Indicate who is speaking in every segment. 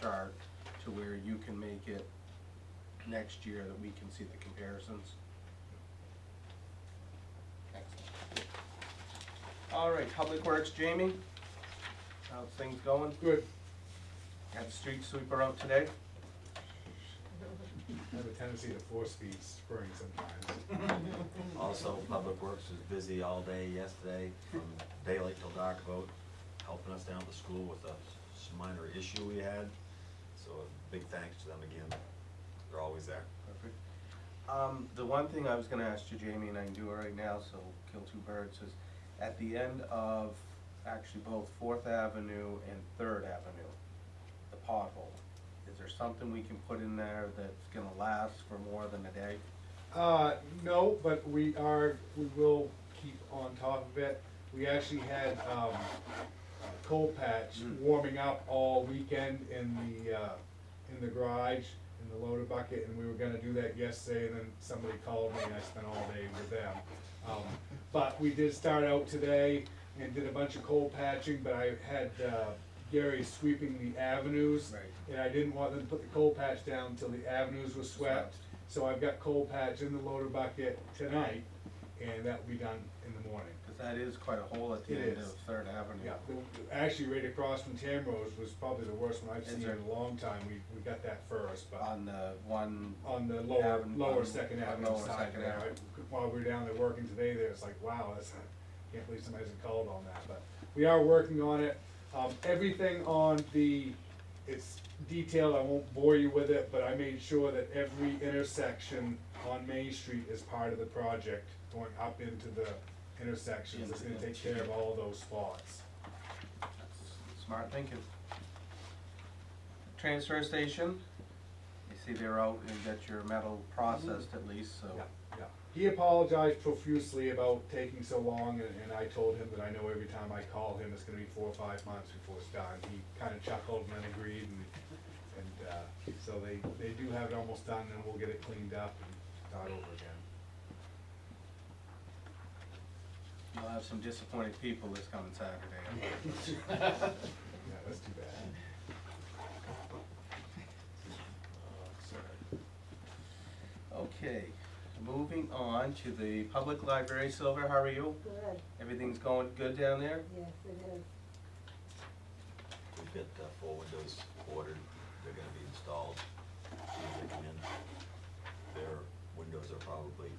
Speaker 1: chart to where you can make it next year that we can see the comparisons. Excellent. All right, Public Works, Jamie? How's things going?
Speaker 2: Good.
Speaker 1: Had the street sweeper out today?
Speaker 2: I have a tendency to force feed spring sometimes.
Speaker 3: Also, Public Works was busy all day yesterday, from daylight till dark about helping us down at the school with a s- minor issue we had. So a big thanks to them again. They're always there.
Speaker 1: Perfect. Um, the one thing I was gonna ask you, Jamie, and I can do it right now, so kill two birds, is at the end of, actually both Fourth Avenue and Third Avenue, the pothole, is there something we can put in there that's gonna last for more than a day?
Speaker 2: Uh, no, but we are, we will keep on top of it. We actually had, um, coal patch
Speaker 1: Mm.
Speaker 2: warming up all weekend in the, uh, in the garage, in the loader bucket, and we were gonna do that yesterday, and then somebody called me, and I spent all day with them. Um, but we did start out today and did a bunch of coal patching, but I had, uh, Gary sweeping the avenues.
Speaker 1: Right.
Speaker 2: And I didn't want them to put the coal patch down till the avenues were swept, so I've got coal patch in the loader bucket tonight, and that'll be done in the morning.
Speaker 1: Cause that is quite a hole at the
Speaker 2: It
Speaker 1: end
Speaker 2: is.
Speaker 1: of Third Avenue.
Speaker 2: Yeah, the- actually, right across from Tamrose was probably the worst one I've
Speaker 1: Is
Speaker 2: seen in
Speaker 1: there-
Speaker 2: a long time, we, we got that first, but
Speaker 1: On the one,
Speaker 2: on the lower,
Speaker 1: Avenue-
Speaker 2: lower
Speaker 1: on-
Speaker 2: Second
Speaker 1: on
Speaker 2: Avenue
Speaker 1: lower
Speaker 2: side
Speaker 1: Second
Speaker 2: there.
Speaker 1: Avenue.
Speaker 2: I- While we were down there working today, there, it's like, wow, that's, can't believe somebody hasn't called on that, but we are working on it. Um, everything on the, it's detailed, I won't bore you with it, but I made sure that every intersection on Main Street is part of the project, going up into the intersections, it's gonna take care of all those spots.
Speaker 1: that's smart thinking. Transfer station, you see they're out and get your metal processed at least, so.
Speaker 2: Yeah, yeah. He apologized profusely about taking so long, and, and I told him that I know every time I call him, it's gonna be four or five months before it's done. He kinda chuckled and then agreed, and, and, uh, so they, they do have it almost done, and we'll get it cleaned up and start over again.
Speaker 1: You'll have some disappointed people this coming Saturday.
Speaker 2: Yeah, that's too bad.
Speaker 1: Okay, moving on to the public library. Silver, how are you?
Speaker 4: Good,
Speaker 1: Everything's going good down there?
Speaker 4: yes, it is.
Speaker 3: We've got uh, four windows ordered. They're gonna be installed as soon as they come in. Their windows are probably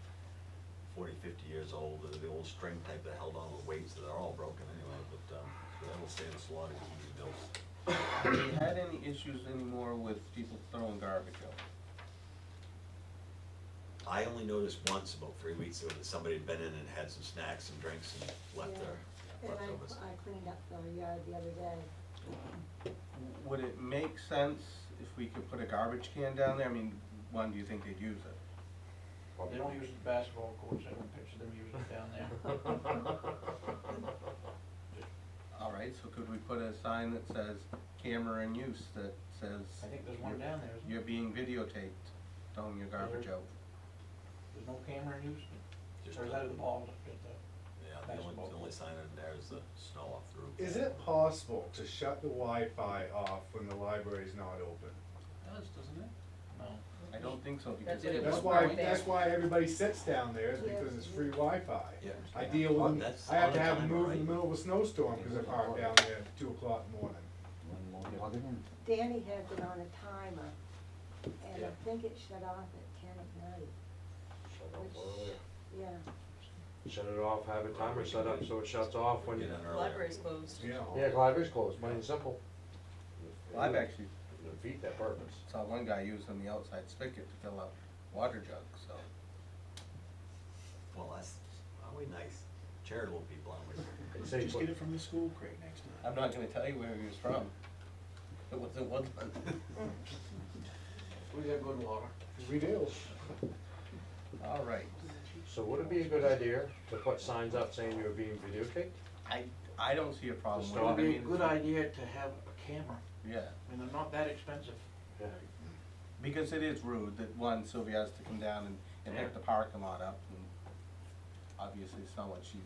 Speaker 3: 40, 50 years old. They're the old string type that held on with weights, so they're all broken anyway, but, um, so that'll save us a lot of huge bills.
Speaker 1: Have you had any issues anymore with people throwing garbage out?
Speaker 3: I only noticed once about three weeks ago that somebody had been in and had some snacks and drinks and left their
Speaker 4: And I,
Speaker 3: leftovers.
Speaker 4: I cleaned up the yard the other day.
Speaker 1: Would it make sense if we could put a garbage can down there? I mean, one, do you think they'd use it?
Speaker 5: They don't use the basketball courts, I don't picture them using it down there.
Speaker 1: All right, so could we put a sign that says camera in use that says
Speaker 5: I think there's one down there, isn't there?
Speaker 1: you're being videotaped throwing your garbage out?
Speaker 5: There's no camera in use,
Speaker 3: Just
Speaker 5: or is
Speaker 3: the-
Speaker 5: that in the balls, just the,
Speaker 3: Yeah, the only, the only sign in there is the snow off the roof.
Speaker 2: Is it possible to shut the Wi-Fi off when the library's not open?
Speaker 6: does, doesn't it?
Speaker 5: no.
Speaker 1: I don't think so because.
Speaker 6: That's it, it
Speaker 2: That's
Speaker 6: was
Speaker 2: why,
Speaker 6: right there.
Speaker 2: that's why everybody sits down there, is because it's free Wi-Fi.
Speaker 3: Yeah.
Speaker 2: I deal with them,
Speaker 3: That's
Speaker 2: I have to
Speaker 3: on a
Speaker 2: have them
Speaker 3: timer,
Speaker 2: move in
Speaker 3: right?
Speaker 2: the middle of a snowstorm because I park down there at two o'clock in the morning.
Speaker 4: Danny has it on a timer, and
Speaker 5: Yeah.
Speaker 4: I think it shut off at ten at night,
Speaker 7: Shut off earlier.
Speaker 4: yeah.
Speaker 7: Shut it off, have a timer set up so it shuts off when,
Speaker 3: Get in earlier.
Speaker 6: Library's closed.
Speaker 2: You know.
Speaker 7: yeah, library's closed, plain and simple.
Speaker 1: Well, I've actually
Speaker 7: Defeat that purpose.
Speaker 1: saw one guy using the outside spigot to fill up water jugs, so.
Speaker 3: Well, that's, aren't we nice? Charitable people, aren't we?
Speaker 7: It saves,
Speaker 5: Just get it from the school crate next time.
Speaker 1: I'm not gonna tell you where he was from. It wasn't Woodland.
Speaker 5: We got good water.
Speaker 7: we do.
Speaker 1: All right.
Speaker 7: So would it be a good idea to put signs up saying you're being videotaped?
Speaker 1: I, I don't see a problem with it.
Speaker 7: Well,
Speaker 5: It'd
Speaker 1: I
Speaker 5: be a
Speaker 1: mean,
Speaker 5: good idea to have a camera,
Speaker 1: Yeah,
Speaker 5: I mean, they're not that expensive.
Speaker 7: Yeah.
Speaker 1: because it is rude that one, Sylvia has to come down and, and pick the parking lot up and obviously it's not what she's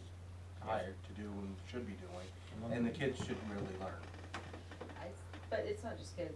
Speaker 1: hired to do
Speaker 5: Mm-hmm.
Speaker 1: and should be doing. And the kids should really learn.
Speaker 8: I, but it's not just kids,